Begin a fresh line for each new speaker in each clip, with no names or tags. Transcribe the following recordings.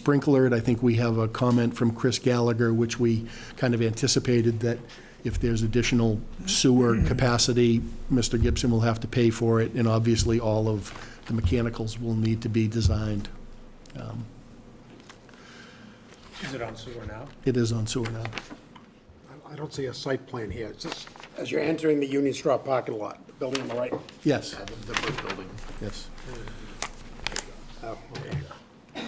sprinkler it. I think we have a comment from Chris Gallagher, which we kind of anticipated that if there's additional sewer capacity, Mr. Gibson will have to pay for it, and obviously, all of the mechanicals will need to be designed. Um,
Is it on sewer now?
It is on sewer now.
I- I don't see a site plan here. It's just, as you're entering the Union Straw parking lot, the building on the right.
Yes,
The brick building.
yes.
Oh, okay.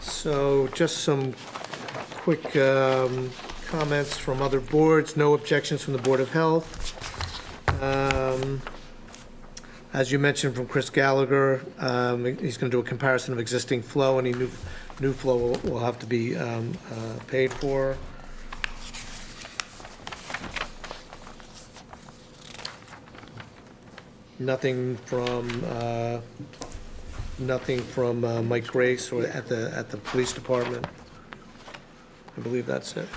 So just some quick um, comments from other boards, no objections from the Board of Health. Um, As you mentioned from Chris Gallagher, um, he's going to do a comparison of existing flow, any new, new flow will- will have to be um, uh, paid for. Nothing from uh, nothing from uh, Mike Grace or at the, at the police department. I believe that's it.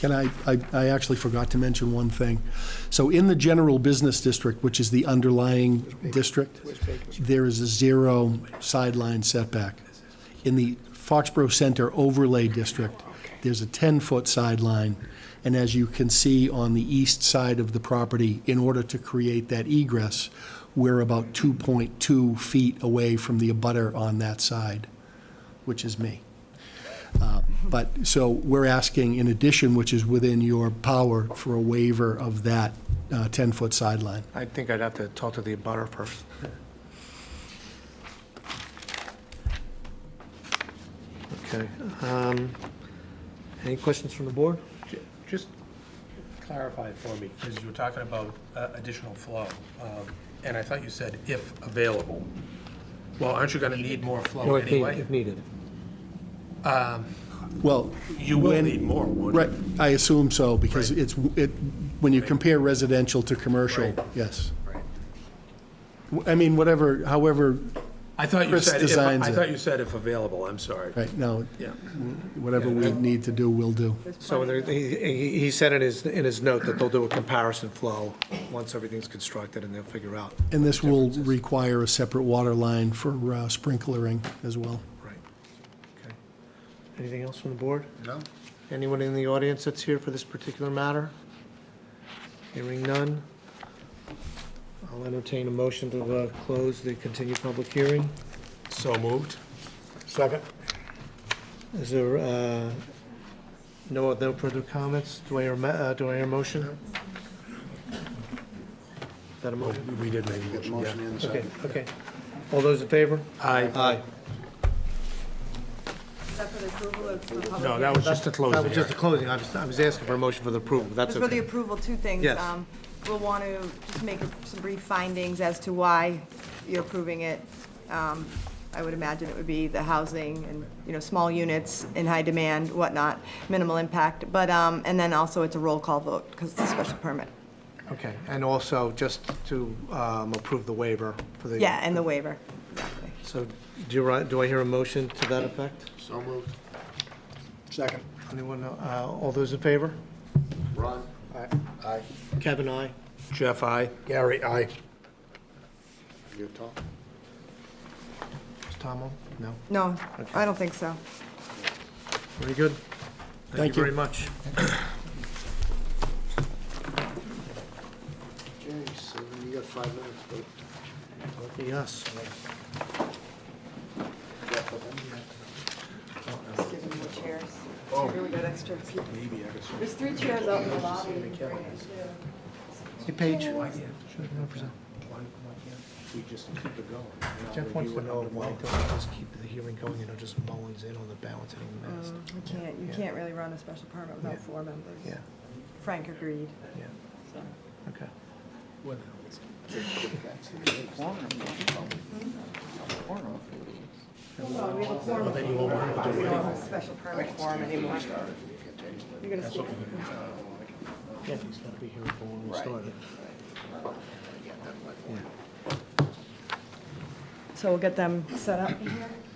Can I, I, I actually forgot to mention one thing. So in the general business district, which is the underlying district, there is a zero sideline setback. In the Foxborough Center overlay district, there's a 10-foot sideline. And as you can see on the east side of the property, in order to create that egress, we're about 2.2 feet away from the abutter on that side, which is me. But, so we're asking, in addition, which is within your power, for a waiver of that uh, 10-foot sideline.
I think I'd have to talk to the abutter first. Okay. um, Any questions from the board?
Ju- Just clarify it for me, because you were talking about uh, additional flow, um, and I thought you said if available. Well, aren't you going to need more flow
No, if need-
anyway?
if needed.
Well,
You will
when-
need more, won't you?
right, I assume so, because
Right.
it's, it, when you compare residential to commercial,
Right.
yes. W- I mean, whatever, however,
I thought you
Chris
said, if-
designs
I
it.
thought you said if available, I'm sorry.
right, no,
Yeah.
whatever we need to do, we'll do.
So there- he, he- he said in his, in his note that they'll do a comparison flow once everything's constructed and they'll figure out.
And this will require a separate water line for uh, sprinklering as well.
Right. Okay. Anything else from the board? No. Anyone in the audience that's here for this particular matter? Hearing none. I'll entertain a motion to uh, close the continued public hearing.
So moved?
Second?
Is there, uh, no, no further comments? Do I hear, a ma- uh, do I hear a motion? Is that a motion?
We did make a motion, yeah.
Okay, okay. All those in favor?
Aye.
Aye.
Except for the approval of the public.
No, that was just to close
That
the
was just
hearing.
the closing. I was, I was asking for a motion for the approval. That's
Just for the
okay.
approval, two things.
Yes.
Um, We'll want to just make some brief findings as to why you're approving it. Um, I would imagine it would be the housing and, you know, small units in high demand, whatnot, minimal impact. But, um, and then also it's a roll call vote because it's a special permit.
Okay, and also just to um, approve the waiver for the.
Yeah, and the waiver. Exactly.
So do you, ri- do I hear a motion to that effect?
So moved. Second?
Anyone, uh, all those in favor?
Ron? Aye. Aye.
Kevin, aye.
Jeff, aye.
Gary, aye. You, Tom?
Is Tom on? No.
No, I don't think so.
Very good.
Thank
very
you.
much.
Okay, so you got five minutes, but
Yes.
Give them the chairs.
Oh.
Here we got extra. There's three chairs out in the lobby. You can bring it, too.
Hey, Paige.
we just keep it going.
Jeff wants to know why don't we just keep the hearing going, you know, just Mullins in on the balance hitting the mast?
You can't, you can't really run a special permit without
Yeah.
four members.
Yeah,
Frank agreed.
yeah, okay.
Well, we have a quorum. We don't have a special permit quorum anymore. You're gonna speak.
Yeah, he's gotta be here before we start it.
So we'll get them set up in here.